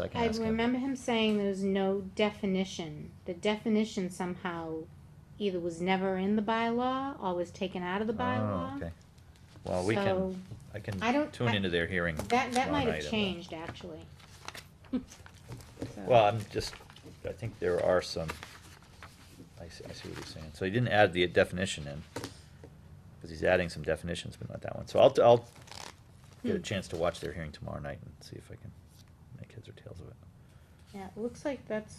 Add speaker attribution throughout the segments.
Speaker 1: So I can
Speaker 2: I
Speaker 1: ask him.
Speaker 2: remember him saying there was no definition. The definition somehow either was never in the bylaw or was taken out of the
Speaker 1: Oh,
Speaker 2: bylaw.
Speaker 1: okay. Well, we can,
Speaker 2: So-
Speaker 1: I can
Speaker 2: I don't-
Speaker 1: tune
Speaker 2: I-
Speaker 1: into their hearing.
Speaker 2: That, that
Speaker 1: tomorrow
Speaker 2: might
Speaker 1: night
Speaker 2: have
Speaker 1: and-
Speaker 2: changed, actually. So-
Speaker 1: Well, I'm just, I think there are some, I see, I see what you're saying. So he didn't add the definition in, because he's adding some definitions, but not that one. So I'll, I'll get a
Speaker 2: Hmm.
Speaker 1: chance to watch their hearing tomorrow night and see if I can make heads or tails of it.
Speaker 2: Yeah, it looks like that's,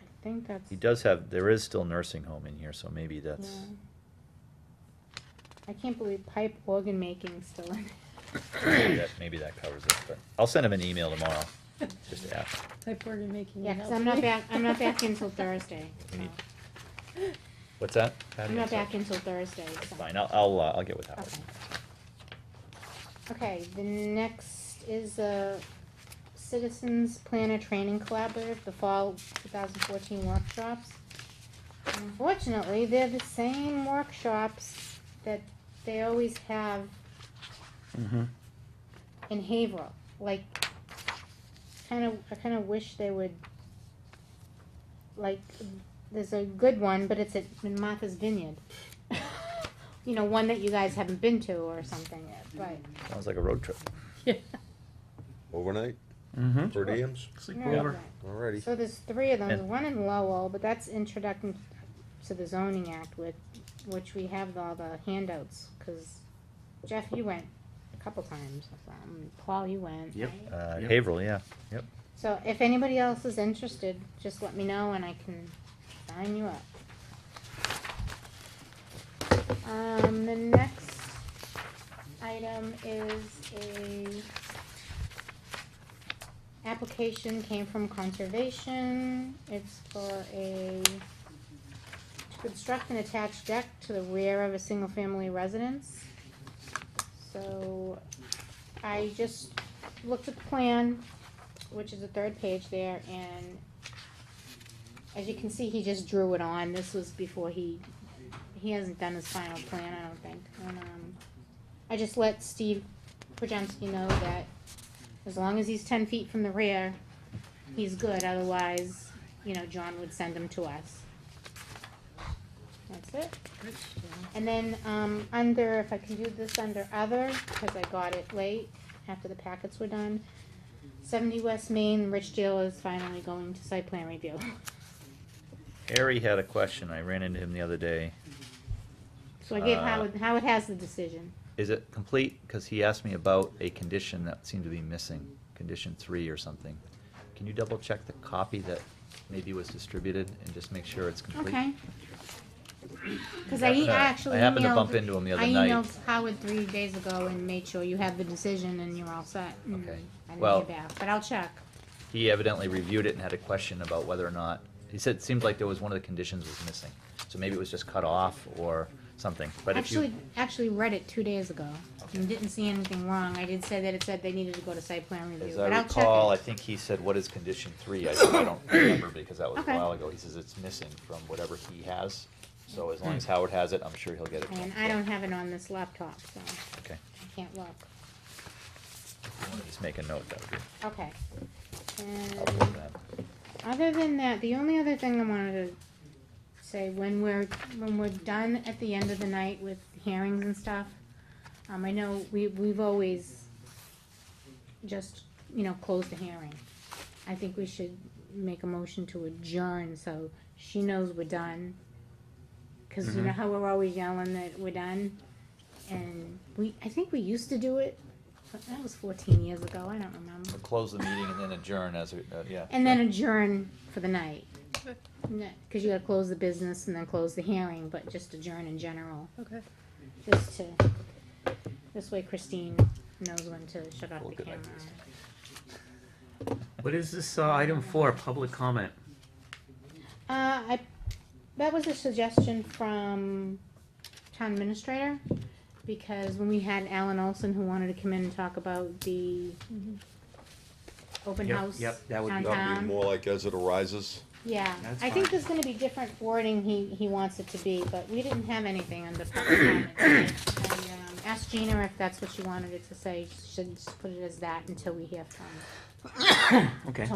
Speaker 2: I think that's.
Speaker 1: He does have, there is still nursing home in here, so maybe that's,
Speaker 2: yeah. I can't believe pipe organ making's still in.
Speaker 1: maybe that, maybe that covers it, but I'll send him an email tomorrow, just to ask.
Speaker 3: Type organ making.
Speaker 2: Yeah,
Speaker 3: it
Speaker 2: cause
Speaker 3: helps
Speaker 2: I'm not
Speaker 3: me.
Speaker 2: back, I'm not back until Thursday,
Speaker 1: We
Speaker 2: so.
Speaker 1: need- What's that? Patty?
Speaker 2: I'm not
Speaker 1: sorry.
Speaker 2: back until Thursday, so.
Speaker 1: Fine, I'll, I'll, uh, I'll get with Howard.
Speaker 2: Okay. Okay, the next is a Citizens Planner Training Collaborative, the Fall two thousand fourteen workshops. Unfortunately, they're the same workshops that they always have
Speaker 4: Mm-hmm.
Speaker 2: in Haverhill, like, kind of, I kind of wish they would, like, there's a good one, but it's at in Martha's Vineyard. You know, one that you guys haven't been to or something, but,
Speaker 1: Sounds like a road trip.
Speaker 3: Yeah.
Speaker 5: Overnight,
Speaker 1: Hmm?
Speaker 4: Mm-hmm.
Speaker 5: per diems,
Speaker 2: no,
Speaker 1: over.
Speaker 2: right.
Speaker 5: alrighty.
Speaker 2: So there's three of them,
Speaker 1: And-
Speaker 2: the one in Lowell, but that's introduction to the zoning act with, which we have all the handouts, cause Jeff, you went a couple times, um, Paul, you went.
Speaker 4: Yep.
Speaker 2: right?
Speaker 1: Uh,
Speaker 4: Yep.
Speaker 1: Haverhill, yeah, yep.
Speaker 2: So if anybody else is interested, just let me know and I can sign you up. Um, the next item is a application came from conservation. It's for a to construct an attached deck to the rear of a single-family residence. So I just looked at the plan, which is the third page there, and as you can see, he just drew it on, this was before he, he hasn't done his final plan, I don't think, and, um, I just let Steve Pajemski know that as long as he's ten feet from the rear, he's good, otherwise, you know, John would send him to us. That's it. And then, um, under, if I can do this under other, cause I got it late after the packets were done. Seventy West Main, Rich Deal is finally going to site plan review.
Speaker 1: Harry had a question. I ran into him the other day.
Speaker 2: So I gave
Speaker 1: Uh,
Speaker 2: Howard, Howard has the decision.
Speaker 1: Is it complete? Because he asked me about a condition that seemed to be missing, condition three or something. Can you double check the copy that maybe was distributed and just make sure it's complete?
Speaker 2: Okay. Cause I e-
Speaker 1: Yeah,
Speaker 2: I actually
Speaker 1: I happened to
Speaker 2: emailed-
Speaker 1: bump into him the other
Speaker 2: I
Speaker 1: night.
Speaker 2: emailed Howard three days ago and made sure you had the decision and you're all set. and
Speaker 1: Okay.
Speaker 2: I
Speaker 1: Well-
Speaker 2: didn't hear back, but I'll check.
Speaker 1: He evidently reviewed it and had a question about whether or not, he said it seemed like there was one of the conditions was missing. So maybe it was just cut off or something, but if you,
Speaker 2: Actually, actually read it two days ago
Speaker 1: Okay.
Speaker 2: and didn't see anything wrong. I did say that it said they needed to go to site plan review,
Speaker 1: as
Speaker 2: but
Speaker 1: I
Speaker 2: I'll check it.
Speaker 1: recall, I think he said, what is condition three? I said, I don't remember because that was a
Speaker 2: Okay.
Speaker 1: while ago. He says it's missing from whatever he has. So as long as Howard has it, I'm sure he'll get it.
Speaker 2: And I don't have it on this laptop, so I
Speaker 1: Okay.
Speaker 2: can't look.
Speaker 1: Just make a note, that would be.
Speaker 2: Okay.
Speaker 1: I'll look at
Speaker 2: And
Speaker 1: that.
Speaker 2: other than that, the only other thing I wanted to say, when we're, when we're done at the end of the night with hearings and stuff, um, I know we, we've always just, you know, closed the hearing. I think we should make a motion to adjourn, so she knows we're done. Cause you know how we're always yelling that we're done? And we, I think we used to do it, but that was fourteen years ago, I don't remember.
Speaker 1: We'll Close the meeting and then adjourn as, we- uh, yeah.
Speaker 2: And then adjourn for the night. Because you gotta close the business and then close the hearing, but just adjourn in general,
Speaker 3: Okay.
Speaker 2: just to, this way Christine knows when to shut off
Speaker 1: Well,
Speaker 2: the
Speaker 1: good
Speaker 2: camera.
Speaker 1: idea.
Speaker 4: What is this uh, item for? Public comment.
Speaker 2: Uh, I, that was a suggestion from town administrator, because when we had Alan Olson who wanted to come in and talk about the
Speaker 3: Mm-hmm.
Speaker 2: open
Speaker 4: Yep,
Speaker 2: house
Speaker 4: yep, that would be-
Speaker 5: That would
Speaker 2: downtown.
Speaker 5: be more like as it arises.
Speaker 2: Yeah,
Speaker 4: That's
Speaker 2: I think
Speaker 4: fine.
Speaker 2: there's gonna be different wording he, he wants it to be, but we didn't have anything under public comment. And, um, ask Gina if that's what she wanted it to say, she should just put it as that until we hear from
Speaker 4: Okay.